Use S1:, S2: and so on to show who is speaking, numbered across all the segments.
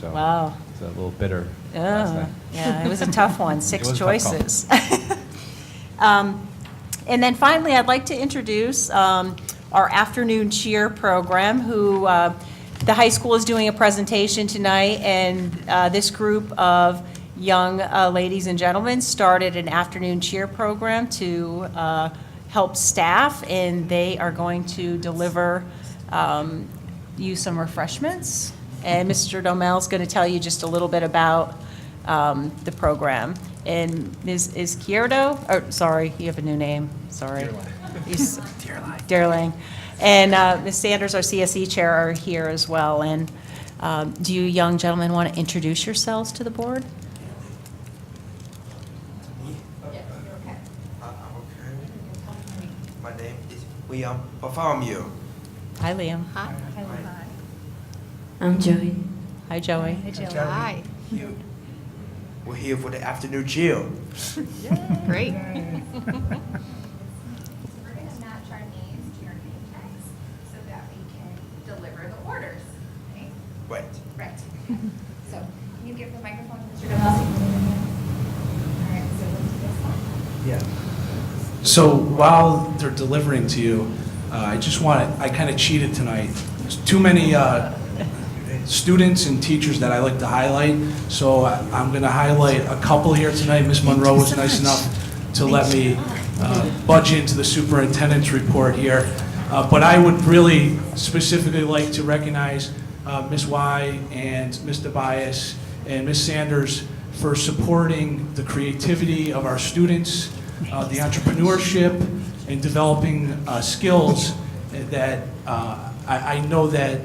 S1: So
S2: Wow.
S1: It's a little bitter last
S2: Oh,
S1: night.
S2: yeah, it was a tough one,
S1: It
S2: six
S1: was a tough call.
S2: choices. Um, And then finally, I'd like to introduce um, our afternoon cheer program, who, uh, the high school is doing a presentation tonight, and uh, this group of young uh, ladies and gentlemen started an afternoon cheer program to uh, help staff, and they are going to deliver um, you some refreshments. And Mr. Domel's going to tell you just a little bit about um, the program. And Ms. is Kierdo, or, sorry, you have a new name, sorry. Dearling. Dearling. And uh, Ms. Sanders, our CSE Chair, are here as well. And um, do you young gentlemen want to introduce yourselves to the board?
S3: Uh, okay. My name is William Bartholomew.
S2: Hi, Liam.
S4: Hi.
S5: I'm Joey.
S2: Hi, Joey.
S4: Hi.
S3: You- We're here for the afternoon chill.
S4: Great.
S6: We're going to match our names to your name tags so that we can deliver the orders. Okay?
S3: Wait.
S6: Right. So can you give the microphone to Mr. Donnelly? All right, so let's do this one.
S3: Yeah.
S7: So while they're delivering to you, uh, I just want to, I kind of cheated tonight. There's too many uh, students and teachers that I like to highlight, so I- I'm going to highlight a couple here tonight. Ms. Monroe was nice enough to let me uh, budge into the superintendent's report here. Uh, But I would really specifically like to recognize uh, Ms. Y and Mr. Bias and Ms. Sanders for supporting the creativity of our students, uh, the entrepreneurship, and developing uh, skills that uh, I I know that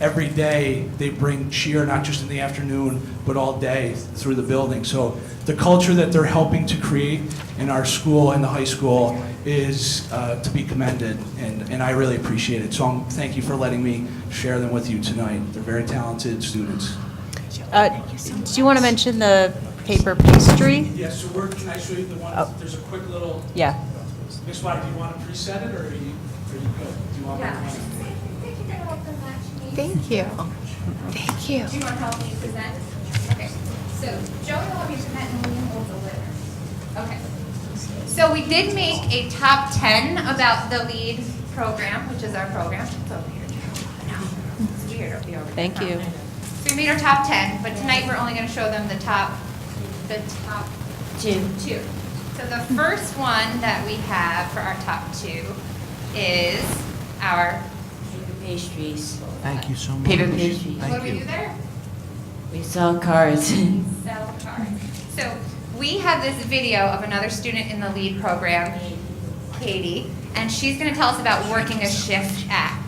S7: every day they bring cheer, not just in the afternoon, but all day through the building. So the culture that they're helping to create in our school and the high school is uh, to be commended, and and I really appreciate it. So I'm- thank you for letting me share them with you tonight. They're very talented students.
S2: Uh, Do you want to mention the paper pastry?
S7: Yeah, so we're, can I show you the one,
S2: Oh.
S7: there's a quick little,
S2: Yeah.
S7: Miss White, do you want to preset it, or are you, are you good? Do you want
S6: Yeah. Thank you very much for matching me.
S4: Thank you. Thank you.
S6: Do you want to help me present? Okay, so Joey will help you present and William will deliver. Okay. So we did make a top 10 about the LEAD program, which is our program. It's over here, Joe. No, It's weird, it'll be over there.
S2: Thank you.
S6: So we made our top 10, but tonight we're only going to show them the top, the top
S5: Two.
S6: two. So the first one that we have for our top two is our,
S5: Paper pastries.
S8: Thank you so much.
S5: Paper pastries.
S6: what
S8: Thank
S6: do we do
S8: you.
S6: there?
S5: We sell cars.
S6: sell cars. So we have this video of another student in the lead program, Katie, and she's going to tell us about working a shift at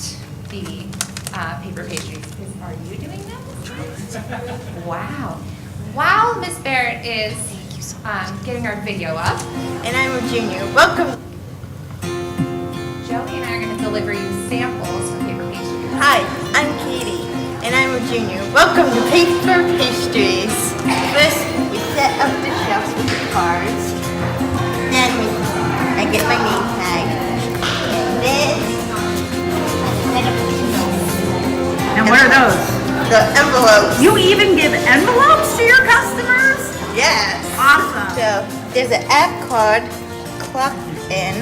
S6: the uh, paper pastries. Is- Are you doing that? Wow. While Miss Barrett is um, getting our video up,
S9: And I'm a junior. Welcome.
S6: Joey and I are going to deliver you samples for paper pastries.
S9: Hi, I'm Katie, and I'm a junior. Welcome to Paper Pastries. First, we set up the shelves with the cards. Then we, I get my name tag. And then, I set up the
S8: And what are those?
S9: The envelopes.
S8: You even give envelopes to your customers?
S9: Yes.
S8: Awesome.
S9: So there's an app called Clock In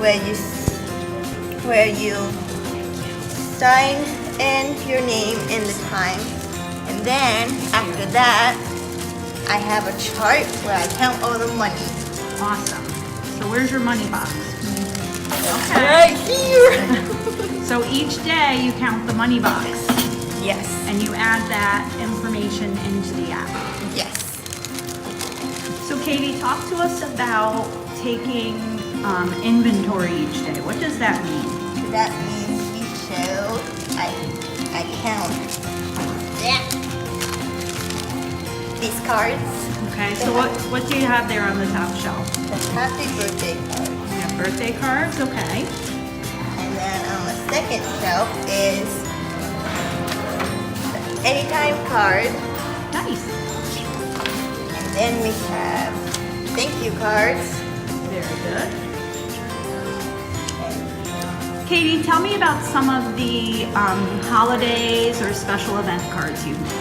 S9: where you where you sign in your name and the time, and then after that, I have a chart where I count all the money.
S8: Awesome. So where's your money box?
S9: Right here.
S8: So each day you count the money box
S9: Yes.
S8: and you add that information into the app.
S9: Yes.
S8: So Katie, talk to us about taking um, inventory each day. What does that mean?
S9: That means you show I I count that these cards.
S8: Okay, so what, what do you have there on the top shelf?
S9: The happy birthday cards.
S8: You have birthday cards, okay.
S9: And then on the second shelf is the anytime card.
S8: Nice,
S9: And then we have thank you cards.
S8: very good. Katie, tell me about some of the um, holidays or special event cards you've made.